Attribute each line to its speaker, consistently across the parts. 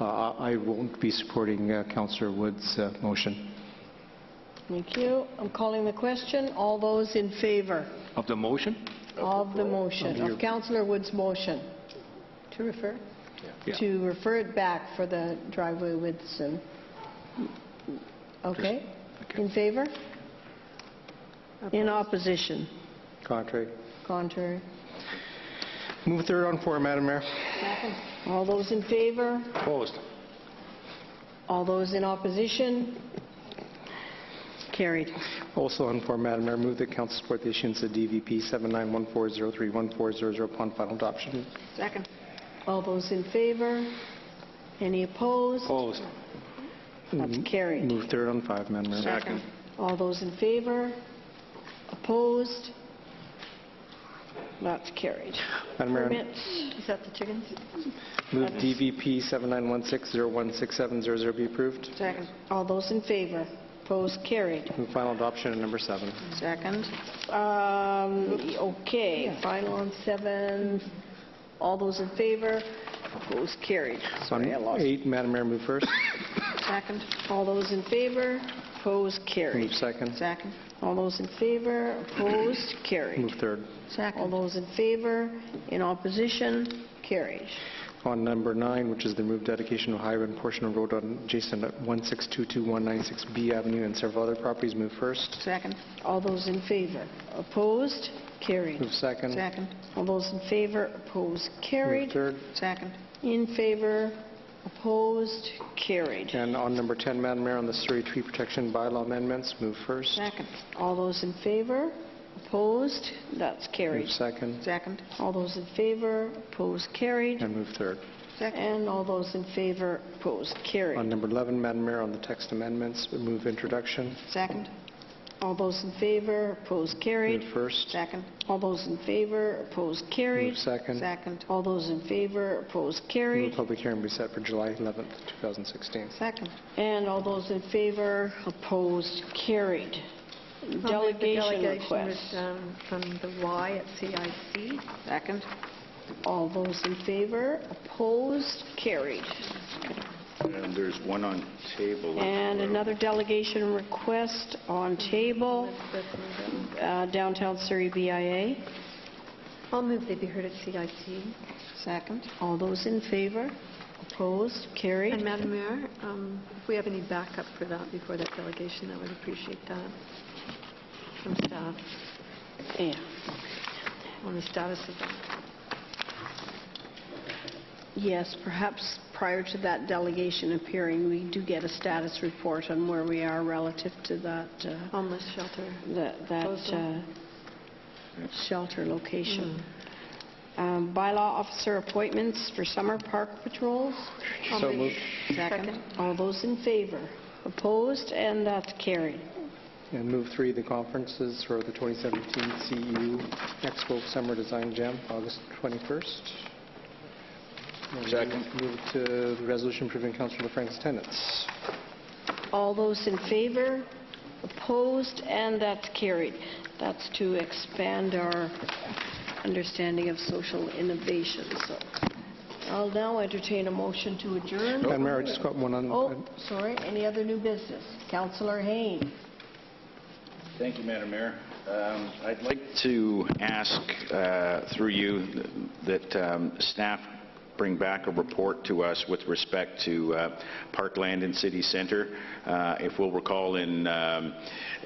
Speaker 1: Uh, I won't be supporting uh, Councillor Wood's uh, motion.
Speaker 2: Thank you. I'm calling the question. All those in favor
Speaker 3: Of the motion?
Speaker 2: of the motion, of Councillor Wood's motion, to refer?
Speaker 3: Yeah.
Speaker 2: To refer it back for the driveway widths and, okay?
Speaker 3: okay.
Speaker 2: In favor? In opposition?
Speaker 1: Contrary.
Speaker 2: Contrary?
Speaker 1: Move third on four, Madam Mayor.
Speaker 2: All those in favor?
Speaker 3: Opposed?
Speaker 2: All those in opposition? Carried.
Speaker 1: Also on four, Madam Mayor, move that council support the issuance of DVP 7914031400 upon final adoption.
Speaker 2: Second. All those in favor? Any opposed?
Speaker 3: Opposed? mm-hmm.
Speaker 2: That's carried.
Speaker 1: Move third on five, Madam Mayor.
Speaker 3: Second.
Speaker 2: All those in favor? Opposed? That's carried.
Speaker 1: Madam Mayor,
Speaker 2: Permits. Is that the chickens?
Speaker 1: move DVP 7916016700 be approved.
Speaker 2: Second. All those in favor? Opposed? Carried.
Speaker 1: Move final adoption of number seven.
Speaker 2: Second. Um, Okay, final on seven. All those in favor? Opposed? Carried.
Speaker 1: On
Speaker 2: Sorry, I lost.
Speaker 1: eight, Madam Mayor, move first.
Speaker 2: Second. All those in favor? Opposed?
Speaker 1: Move
Speaker 2: Carried.
Speaker 1: second.
Speaker 2: Second. All those in favor? Opposed? Carried.
Speaker 1: Move third.
Speaker 2: All those in favor, in opposition, carried.
Speaker 1: On number nine, which is the move dedication of highway and portion of road on adjacent at 1622196B Avenue and several other properties, move first.
Speaker 2: Second. All those in favor, opposed, carried.
Speaker 1: Move second.
Speaker 2: All those in favor, opposed,
Speaker 1: Move
Speaker 2: carried.
Speaker 1: third.
Speaker 2: Second. In favor, opposed, carried.
Speaker 1: And on number 10, Madam Mayor, on the Surrey Tree Protection Bylaw amendments, move first.
Speaker 2: Second. All those in favor, opposed, that's
Speaker 1: Move
Speaker 2: carried.
Speaker 1: second.
Speaker 2: Second. All those in favor, opposed, carried.
Speaker 1: And move third.
Speaker 2: And all those in favor, opposed,
Speaker 1: On
Speaker 2: carried.
Speaker 1: number 11, Madam Mayor, on the text amendments, move introduction.
Speaker 2: Second. All those in favor, opposed, carried.
Speaker 1: Move first.
Speaker 2: Second. All those in favor, opposed,
Speaker 1: Move
Speaker 2: carried.
Speaker 1: second.
Speaker 2: Second. All those in favor, opposed, carried.
Speaker 1: Move public hearing be set for July 11th, 2016.
Speaker 2: Second. And all those in favor, opposed, carried.
Speaker 4: I'll move the
Speaker 2: Delegation
Speaker 4: delegation
Speaker 2: request.
Speaker 4: with, um, From the Y at CIC.
Speaker 2: Second. All those in favor, opposed, carried.
Speaker 5: And there's one on table.
Speaker 2: And another delegation request on table, uh, downtown Surrey BIA.
Speaker 4: I'll move they be heard at CIC.
Speaker 2: Second. All those in favor, opposed, carried.
Speaker 4: And Madam Mayor, um, if we have any backup for that before that delegation, I would appreciate that from staff
Speaker 2: Yeah.
Speaker 4: on the status of that.
Speaker 2: Yes, perhaps prior to that delegation appearing, we do get a status report on where we are relative to that, uh,
Speaker 4: Homeless shelter.
Speaker 2: that that, uh, shelter location. Um, Bylaw officer appointments for summer park patrols.
Speaker 4: I'll
Speaker 1: So
Speaker 4: move-
Speaker 1: moved.
Speaker 4: Second.
Speaker 2: All those in favor? Opposed? And that's carried.
Speaker 1: And move three, the conferences for the 2017 CEU E Expo Summer Design Jam, August 21st. And
Speaker 5: Second.
Speaker 1: Move to the resolution approving Councilor Frank's attendance.
Speaker 2: All those in favor? Opposed? And that's carried. That's to expand our understanding of social innovation, so. I'll now entertain a motion to adjourn.
Speaker 1: Madam Mayor, I just got one on...
Speaker 2: Oh, sorry, any other new business? Councillor Hain.
Speaker 5: Thank you, Madam Mayor. Um, I'd like to ask uh, through you that um, staff bring back a report to us with respect to uh, parkland in city center. Uh, If we'll recall, in um,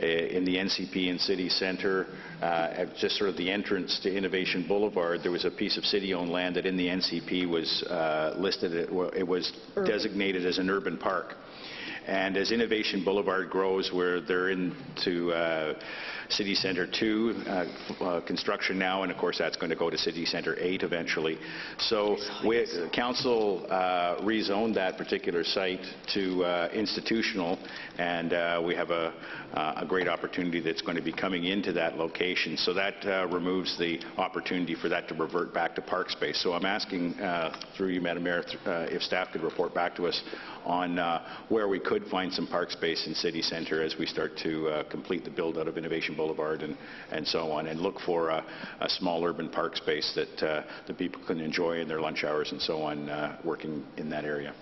Speaker 5: eh, in the NCP in city center, uh, at just sort of the entrance to Innovation Boulevard, there was a piece of city-owned land that in the NCP was uh, listed, it wa- it was designated as an urban park. And as Innovation Boulevard grows, where they're into uh, City Center 2 uh, f- uh, construction now, and of course, that's going to go to City Center 8 eventually. So we- council uh, rezoned that particular site to uh, institutional, and uh, we have a uh, a great opportunity that's going to be coming into that location. So that uh, removes the opportunity for that to revert back to park space. So I'm asking, uh, through you, Madam Mayor, th- uh, if staff could report back to us on uh, where we could find some park space in city center as we start to uh, complete the build-out of Innovation Boulevard and and so on, and look for a a small urban park space that uh, the people can enjoy in their lunch hours and so on, uh, working in that area.